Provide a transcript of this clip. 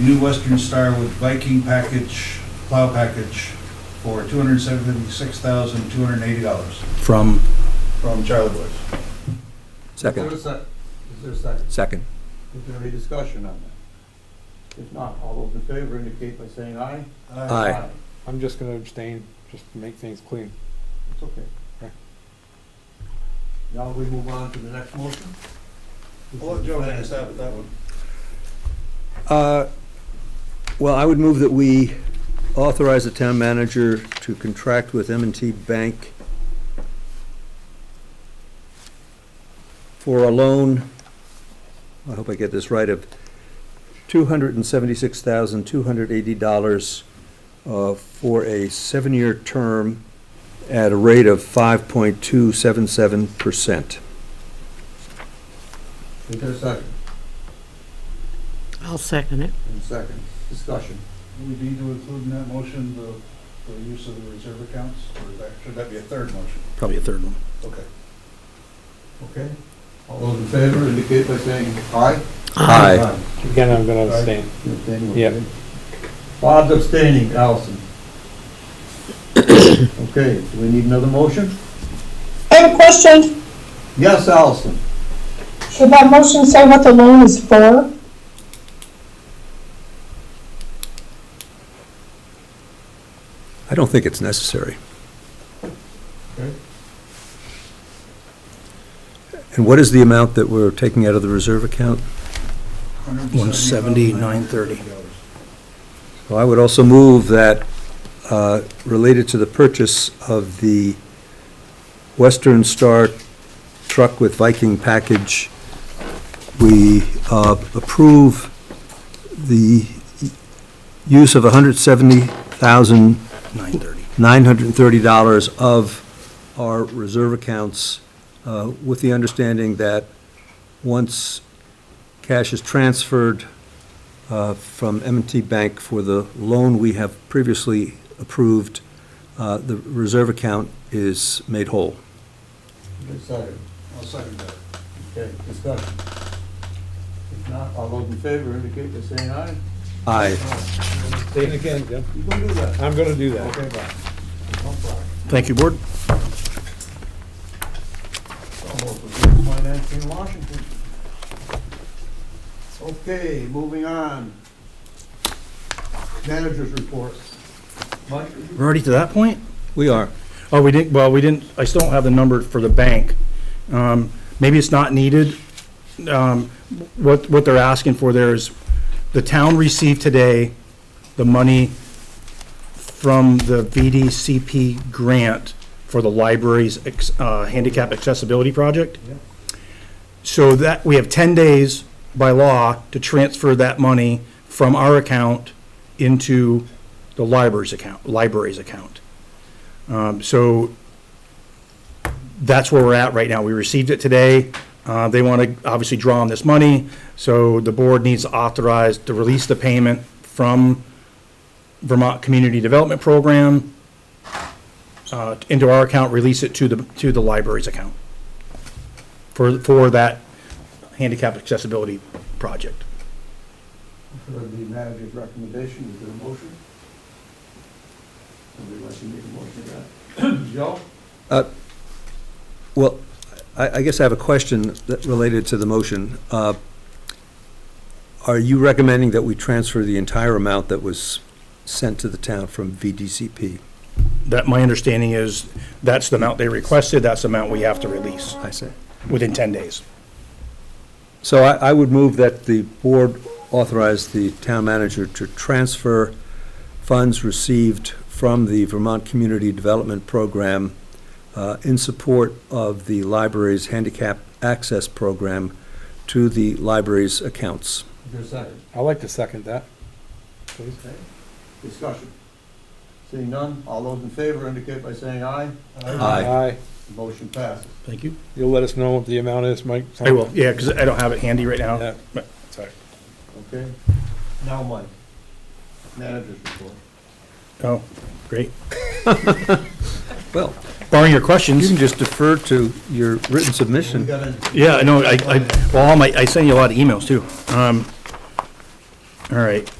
New Western Star with Viking package, plow package for two hundred seventy-six thousand, two hundred eighty dollars From, from Charlie Boys. second, Is there a sec- is there a second? second. Is there any discussion on that? If not, all those in favor indicate by saying aye. Aye. I'm just gonna abstain, just to make things clean. It's okay. Okay. Now we move on to the next motion. I'll let Joe take a stab at that one. Uh, Well, I would move that we authorize the town manager to contract with m and T Bank for a loan, I hope I get this right, of $276,280 uh, for a seven-year term at a rate of 5.277%. Is there a second? I'll second it. And second, discussion. Do we need to include in that motion the, the use of the reserve accounts? Or is that- should that be a third motion? Probably a third one. Okay. Okay. All those in favor indicate by saying aye. Aye. Again, I'm gonna abstain. You abstaining, Yep. okay. Bob's abstaining, Allison. Okay, do we need another motion? I have a question. Yes, Allison. Should that motion say what the loan is for? I don't think it's necessary. Okay. And what is the amount that we're taking out of the reserve account? dollars. Well, I would also move that, uh, related to the purchase of the Western Star truck with Viking package, we uh, approve the use of $170,930 of our reserve accounts uh, with the understanding that once cash is transferred uh, from m and T Bank for the loan we have previously approved, uh, the reserve account is made whole. Is there a Second. I'll second that. Okay, discussion. If not, all those in favor indicate by saying aye. Aye. Abstain again, Jim. You gonna do that? I'm gonna do that. Okay, bye. No problem. Thank you, Board. Almost as good as mine actually in Washington. Okay, moving on. Managers report. Mike? We're already to that point? We are. Oh, we didn't, well, we didn't, I still don't have the number for the bank. Um, Maybe it's not needed. Um, What, what they're asking for there is, the town received today the money from the VDCP grant for the library's ex- uh, handicap accessibility project. So that, we have 10 days by law to transfer that money from our account into the library's account, library's account. Um, So that's where we're at right now. We received it today. Uh, They want to obviously draw on this money, so the board needs to authorize to release the payment from Vermont Community Development Program uh, into our account, release it to the, to the library's account for, for that handicap accessibility project. For the manager's recommendation, is there a motion? Somebody like to make a motion to that? Joe? Well, I, I guess I have a question that related to the motion. Uh, Are you recommending that we transfer the entire amount that was sent to the town from VDCP? That, my understanding is, that's the amount they requested, that's the amount we have to release I say. within 10 days. So I, I would move that the board authorize the town manager to transfer funds received from the Vermont Community Development Program uh, in support of the library's handicap access program to the library's accounts. Is there a second? I like to second that. Please. Okay. Discussion. Seeing none, all those in favor indicate by saying aye. Aye. Aye. Motion passes. Thank you. You'll let us know what the amount is, Mike? I will, yeah, because I don't have it handy right Yeah. now. But- Sorry. Okay? Now, Mike, manager's report. Oh, great. Well, Barring your you questions. can just defer to your written We submission. got a Yeah, I know, I, I, well, all my, I send you a lot of emails too. Um, all right.